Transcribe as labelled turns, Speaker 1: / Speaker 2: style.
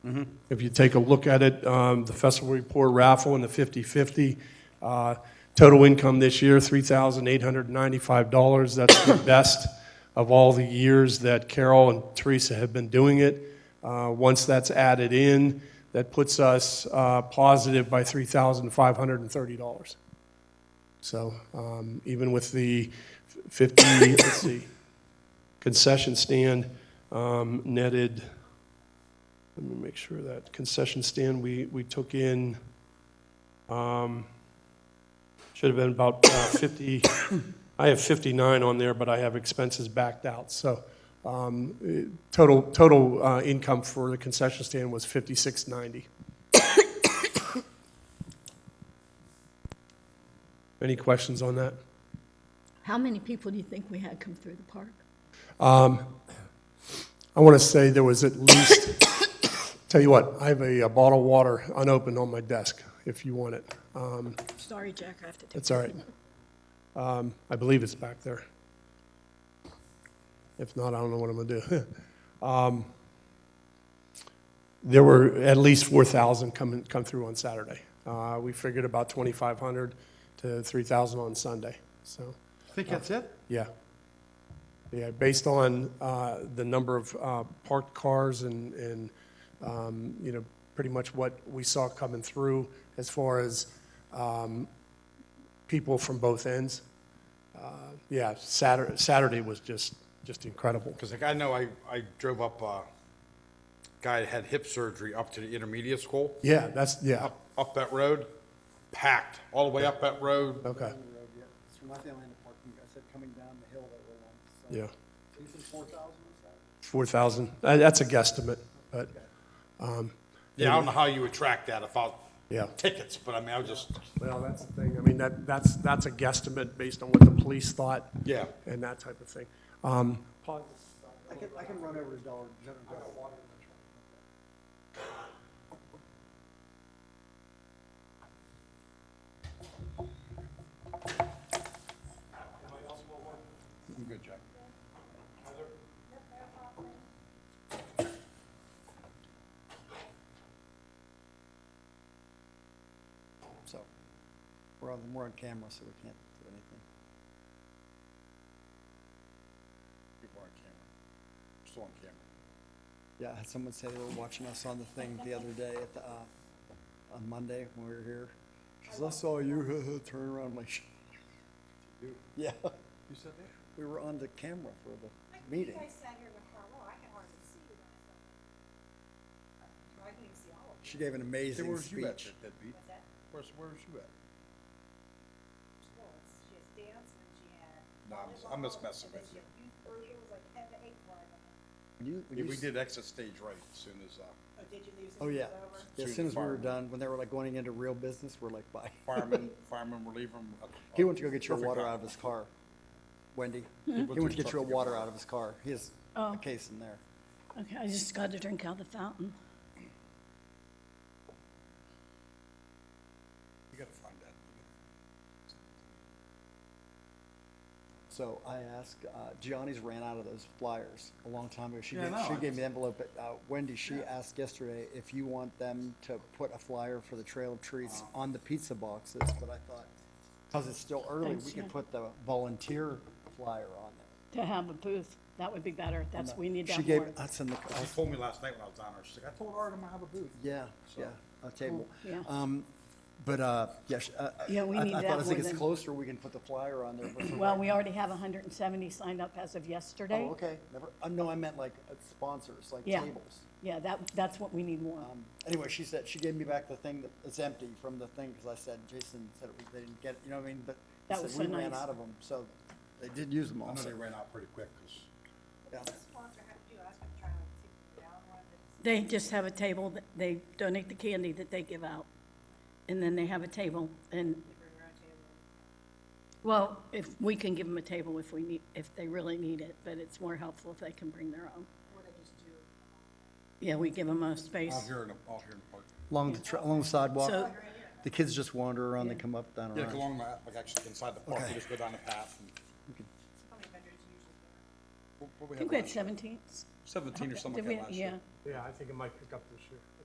Speaker 1: If you take a look at it, um, the festival report raffle and the 50/50, uh, total income this year, $3,895. That's the best of all the years that Carol and Teresa have been doing it. Uh, Once that's added in, that puts us uh, positive by $3,530. So um, even with the 50, let's see, concession stand um, netted, let me make sure that concession stand, we, we took in, um, should have been about uh, 50, I have 59 on there, but I have expenses backed out. So um, eh, total, total uh, income for the concession stand was 5690. Any questions on that?
Speaker 2: How many people do you think we had come through the park?
Speaker 1: I want to say there was at least, tell you what, I have a a bottle of water unopened on my desk, if you want it. Um,
Speaker 2: Sorry, Jack, I have to take.
Speaker 1: It's all right. Um, I believe it's back there. If not, I don't know what I'm going to do. Um, There were at least 4,000 come, come through on Saturday. Uh, We figured about 2,500 to 3,000 on Sunday, so.
Speaker 3: I think that's it.
Speaker 1: Yeah. Yeah, based on uh, the number of uh, parked cars and, and, um, you know, pretty much what we saw coming through as far as um, people from both ends. Uh, Yeah, Saturday, Saturday was just, just incredible.
Speaker 3: Because like I know I, I drove up a guy that had hip surgery up to the intermediate school,
Speaker 1: Yeah, that's, yeah,
Speaker 3: up, up that road, packed, all the way up that road.
Speaker 1: okay,
Speaker 4: the road yet. It's from my family in the parking, I said coming down the hill that we're on. So,
Speaker 1: yeah.
Speaker 4: so you said four thousand
Speaker 1: 4,000,
Speaker 4: or so?
Speaker 1: Uh, that's a guesstimate, but,
Speaker 3: Yeah, I don't know how you would track that if I,
Speaker 1: yeah.
Speaker 3: tickets, but I mean, I was just,
Speaker 1: Well, that's the thing, I mean, that, that's, that's a guesstimate based on what the police thought.
Speaker 3: Yeah.
Speaker 1: And that type of thing. Um, Pause.
Speaker 4: I can, I can run over his dollar. general dollar.
Speaker 3: I'm good, Jack.
Speaker 4: So, we're on, we're on camera, so we can't do anything.
Speaker 3: People are on camera. Still on camera.
Speaker 4: Yeah, I had someone say they were watching us on the thing the other day at the, uh, on Monday when we were here. She says, I saw you, turn around, I'm like, "Sh-" yeah. You said that? We were on the camera for the meeting.
Speaker 5: I sat here in the front row, I can hardly see you guys. up there. I can even see all of you.
Speaker 4: She gave an
Speaker 3: Hey,
Speaker 4: amazing
Speaker 3: where's you at,
Speaker 4: speech.
Speaker 3: that beat?
Speaker 5: What's that?
Speaker 3: Where's, where's you at?
Speaker 5: Well, it's- She has dance and she had.
Speaker 3: No, I'm just- I'm just messing with you.
Speaker 5: It was like ten to eight oh, for her.
Speaker 4: When you- when
Speaker 3: Yeah,
Speaker 4: you
Speaker 3: we
Speaker 4: s-
Speaker 3: did exit stage right as soon as, uh,
Speaker 5: Oh, did you leave? since
Speaker 4: Oh,
Speaker 5: it
Speaker 4: yeah.
Speaker 5: was over?
Speaker 4: Yeah, As
Speaker 3: Shooting
Speaker 4: soon as we were
Speaker 3: fireworks.
Speaker 4: done, when they were like going into real business, we're like, bye.
Speaker 3: firemen, firemen were leaving. uh,
Speaker 4: He went to go get your
Speaker 3: perfect
Speaker 4: water
Speaker 3: time.
Speaker 4: out of his car, Wendy. He
Speaker 3: went to
Speaker 4: went to get
Speaker 3: truck
Speaker 4: your
Speaker 3: to get
Speaker 4: water
Speaker 3: water.
Speaker 4: out of his car. He has
Speaker 2: Oh.
Speaker 4: a case in there.
Speaker 2: Okay, I just got to drink out of the fountain.
Speaker 3: You gotta find that.
Speaker 4: So I asked, uh, Gianni's ran out of those flyers a long time ago. She
Speaker 3: Yeah, I
Speaker 4: gave,
Speaker 3: know.
Speaker 4: she gave me the envelope, but, uh, Wendy, she asked yesterday if you want them to put a flyer for the Trail of Treats
Speaker 3: Uh.
Speaker 4: on the pizza boxes, but I thought, cause it's still early,
Speaker 2: Thanks,
Speaker 4: we
Speaker 2: yeah.
Speaker 4: could put the volunteer flyer on there.
Speaker 2: To have a booth, that would be better. That's, we need
Speaker 4: She
Speaker 2: that
Speaker 4: gave
Speaker 2: more.
Speaker 4: us in the, I
Speaker 3: She told me last night when I was down there, she's like, I told Artem I have a booth.
Speaker 4: Yeah, yeah, a table.
Speaker 2: yeah.
Speaker 4: Um, but, uh, yes, uh,
Speaker 2: Yeah, we
Speaker 4: I-
Speaker 2: need
Speaker 4: I
Speaker 2: that
Speaker 4: thought as
Speaker 2: more
Speaker 4: it gets
Speaker 2: than-
Speaker 4: closer, we can put the flyer on there. but for
Speaker 2: Well,
Speaker 4: right-
Speaker 2: we already have hundred and seventy signed up as of yesterday.
Speaker 4: Oh, okay, never, uh, no, I meant like uh, sponsors, like
Speaker 2: Yeah.
Speaker 4: tables.
Speaker 2: Yeah, that, that's what we need more.
Speaker 4: Um, anyway, she said, she gave me back the thing that is empty from the thing, because I said, Jason said it was- they didn't get, it," you know what I mean? But
Speaker 2: That
Speaker 4: he said
Speaker 2: was so
Speaker 4: we ran
Speaker 2: nice.
Speaker 4: out of them, so they did use them
Speaker 3: I
Speaker 4: all.
Speaker 3: know
Speaker 4: so-
Speaker 3: they ran out pretty quick, 'cause
Speaker 4: yeah.
Speaker 5: What does the sponsor have to do? I was gonna try to take them down one that's.
Speaker 2: They just have a table, that they donate the candy that they give out. And then they have a table and,
Speaker 5: bring around table.
Speaker 2: well, if, we can give them a table if we need, if they really need it, but it's more helpful if they can bring their own.
Speaker 5: What they just do.
Speaker 2: Yeah, we give them a space.
Speaker 3: out here in the, out here in the park.
Speaker 4: Along the, tr- along the sidewalk,
Speaker 2: So-
Speaker 4: the kids just wander around, they come up, down
Speaker 3: Yeah, like
Speaker 4: around.
Speaker 3: along the, like actually inside the park, you just go down the path and.
Speaker 5: How many vendors usually?
Speaker 3: what- what we
Speaker 2: I
Speaker 3: have
Speaker 2: think we had
Speaker 3: last year?
Speaker 2: seventeen,
Speaker 6: seventeen or something
Speaker 7: Did
Speaker 6: like
Speaker 7: we-
Speaker 6: that last year.
Speaker 7: Yeah.
Speaker 3: Yeah, I think it might pick up this year.